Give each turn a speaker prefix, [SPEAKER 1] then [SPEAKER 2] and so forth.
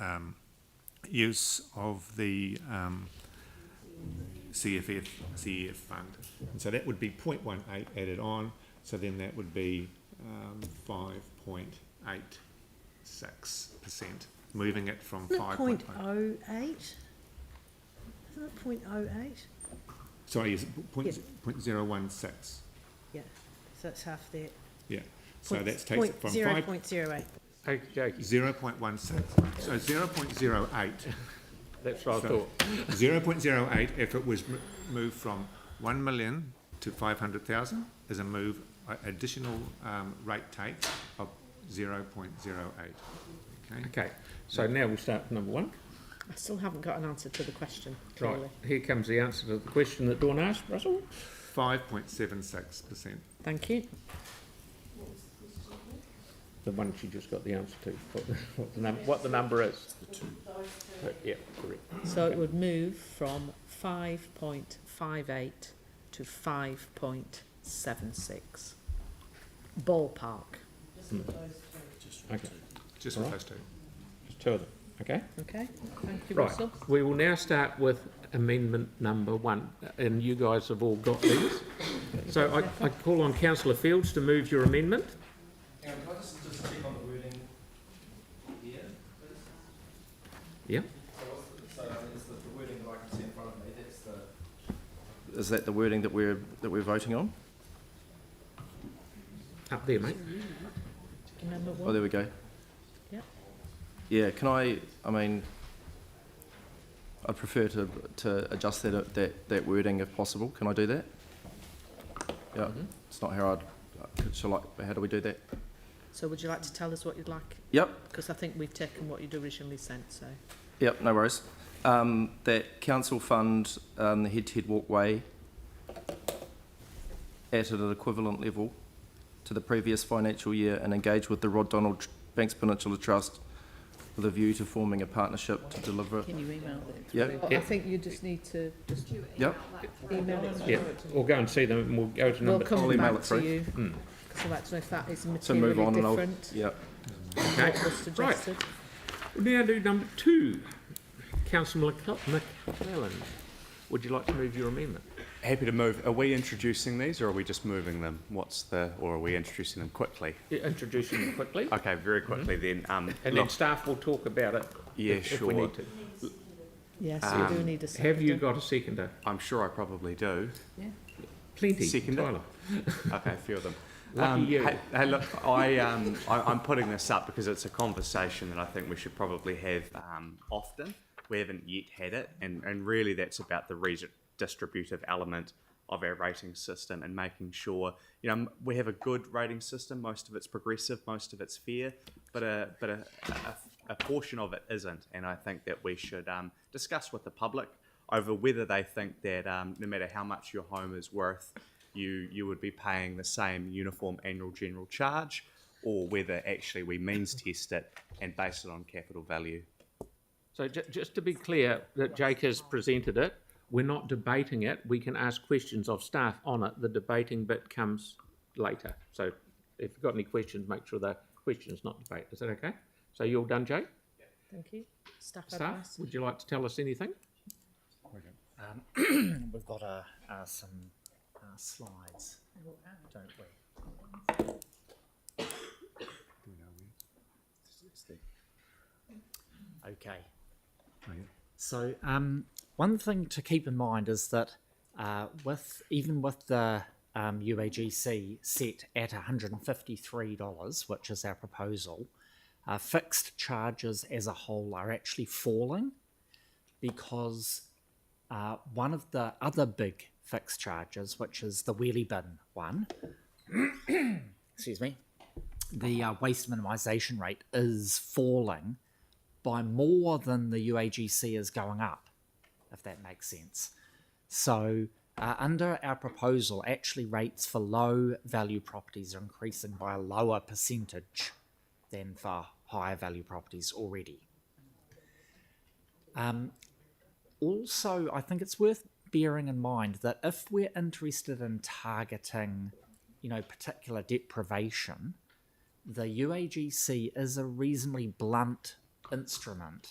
[SPEAKER 1] um, use of the um, CFF, CEF fund. And so that would be 0.18 added on, so then that would be um, 5.86%, moving it from
[SPEAKER 2] Isn't it
[SPEAKER 1] 5.0.
[SPEAKER 2] point oh eight? Isn't it point oh eight?
[SPEAKER 1] Sorry, is it point,
[SPEAKER 2] Yeah.
[SPEAKER 1] z- point zero one six?
[SPEAKER 2] Yeah, so it's half there.
[SPEAKER 1] Yeah, so
[SPEAKER 2] Point-
[SPEAKER 1] that takes it
[SPEAKER 2] point
[SPEAKER 1] from
[SPEAKER 2] zero
[SPEAKER 1] five,
[SPEAKER 2] point zero eight.
[SPEAKER 3] Okey dokey,
[SPEAKER 1] zero point one six, so zero point zero eight.
[SPEAKER 3] that's what I
[SPEAKER 1] So-
[SPEAKER 3] thought.
[SPEAKER 1] Zero point zero eight, if it was m- moved from one million to five hundred thousand, is a move, a- additional, um, rate take of zero point zero eight. Okay,
[SPEAKER 3] Okay, so now we start with number one.
[SPEAKER 4] I still haven't got an answer to the question,
[SPEAKER 3] Right,
[SPEAKER 4] clearly.
[SPEAKER 3] here comes the answer to the question that Dawn asked, Russell.
[SPEAKER 1] five point seven six percent.
[SPEAKER 4] Thank you.
[SPEAKER 3] The one she just got the answer to, what the, what the, num- what the number is. But, Yeah, correct.
[SPEAKER 4] So it would move from 5.58 to 5.76. Ballpark.
[SPEAKER 3] Okay,
[SPEAKER 1] Just with
[SPEAKER 3] Right.
[SPEAKER 1] those two.
[SPEAKER 3] just two of them, okay?
[SPEAKER 4] Okay? Thank you,
[SPEAKER 3] Right,
[SPEAKER 4] Russell.
[SPEAKER 3] we will now start with amendment number one, and you guys have all got these. So I, I call on councillor Fields to move your amendment.
[SPEAKER 5] Aaron, can I just, just check on the wording here, please?
[SPEAKER 3] Yeah.
[SPEAKER 5] So what's the, so is the, the wording that I can see in front of me, that's the. Is that the wording that we're, that we're voting on?
[SPEAKER 3] Up there, mate.
[SPEAKER 4] Remember
[SPEAKER 5] Oh,
[SPEAKER 4] what?
[SPEAKER 5] there we go.
[SPEAKER 4] Yep.
[SPEAKER 5] Yeah, can I, I mean, I'd prefer to, to adjust that, that, that wording if possible, can I do that? Yeah,
[SPEAKER 3] Mhm.
[SPEAKER 5] it's not how I'd, uh, shall I, how do we do that?
[SPEAKER 4] So would you like to tell us what you'd like?
[SPEAKER 5] Yep,
[SPEAKER 4] Because I think we've taken what you'd originally sent, so.
[SPEAKER 5] Yep, no worries. Um, that council fund um, the head to head walkway at an equivalent level to the previous financial year and engage with the Rod Donald Tr- Banks Peninsula Trust with a view to forming a partnership to deliver.
[SPEAKER 4] Can you email it?
[SPEAKER 5] Yep,
[SPEAKER 3] Yeah.
[SPEAKER 4] I think you just need to just
[SPEAKER 5] yep,
[SPEAKER 4] email it.
[SPEAKER 3] Yeah, we'll go and see them, and we'll go to
[SPEAKER 4] We'll
[SPEAKER 3] number.
[SPEAKER 5] I'll
[SPEAKER 4] come
[SPEAKER 5] email
[SPEAKER 4] back to
[SPEAKER 5] it through.
[SPEAKER 4] you.
[SPEAKER 3] Mm.
[SPEAKER 4] So that's if that is
[SPEAKER 5] so move
[SPEAKER 4] materially
[SPEAKER 5] on and I'll,
[SPEAKER 4] different
[SPEAKER 5] yep.
[SPEAKER 4] to
[SPEAKER 3] Okay,
[SPEAKER 4] what was suggested.
[SPEAKER 3] we'll now do number two. Councillor McCle- McClellan, would you like to move your amendment?
[SPEAKER 6] Happy to move. Are we introducing these or are we just moving them? What's the, or are we introducing them quickly?
[SPEAKER 3] Yeah, Introduce them quickly,
[SPEAKER 6] Okay, very quickly then. Um,
[SPEAKER 3] Mm-hmm. and then
[SPEAKER 6] look,
[SPEAKER 3] staff will talk about it.
[SPEAKER 6] Yeah,
[SPEAKER 3] if- If we
[SPEAKER 6] sure.
[SPEAKER 3] need to.
[SPEAKER 4] Yes,
[SPEAKER 5] Ah.
[SPEAKER 4] you do
[SPEAKER 6] Um,
[SPEAKER 4] need a second.
[SPEAKER 3] Have you got a seconder?
[SPEAKER 6] I'm sure I probably do.
[SPEAKER 3] Plenty,
[SPEAKER 6] Seconder?
[SPEAKER 3] Tyler.
[SPEAKER 6] Okay, a few of them.
[SPEAKER 3] Lucky
[SPEAKER 6] Um,
[SPEAKER 3] you.
[SPEAKER 6] Hey, hey, look, I, um, I, I'm putting this up because it's a conversation that I think we should probably have um, often. We haven't yet had it, and, and really that's about the redistributive element of our rating system and making sure you know m- we have a good rating system. Most of it's progressive, most of it's fair, but a but a, a, a portion of it isn't. And I think that we should um, discuss with the public over whether they think that um, no matter how much your home is worth, you you would be paying the same uniform annual general charge, or whether actually we means test it and base it on capital value.
[SPEAKER 3] So ju- just to be clear, that Jake has presented it, we're not debating it, we can ask questions of staff on it, the debating bit comes later. So if you've got any questions, make sure they're questions, not debate, is that okay? So you all done, Jake?
[SPEAKER 4] Thank you. Staff
[SPEAKER 3] Staff,
[SPEAKER 4] advice.
[SPEAKER 3] would you like to tell us anything?
[SPEAKER 7] We've got uh, uh, some uh, slides, don't we? Okay. So um, one thing to keep in mind is that uh, with even with the um, UAGC set at $153, which is our proposal, uh, fixed charges as a whole are actually falling because uh, one of the other big fixed charges, which is the wheelie bin one, excuse me, the uh, waste minimisation rate is falling by more than the UAGC is going up, if that makes sense. So, uh, under our proposal, actually rates for low value properties are increasing by a lower percentage than for higher value properties already. also, I think it's worth bearing in mind that if we're interested in targeting, you know, particular deprivation, the UAGC is a reasonably blunt instrument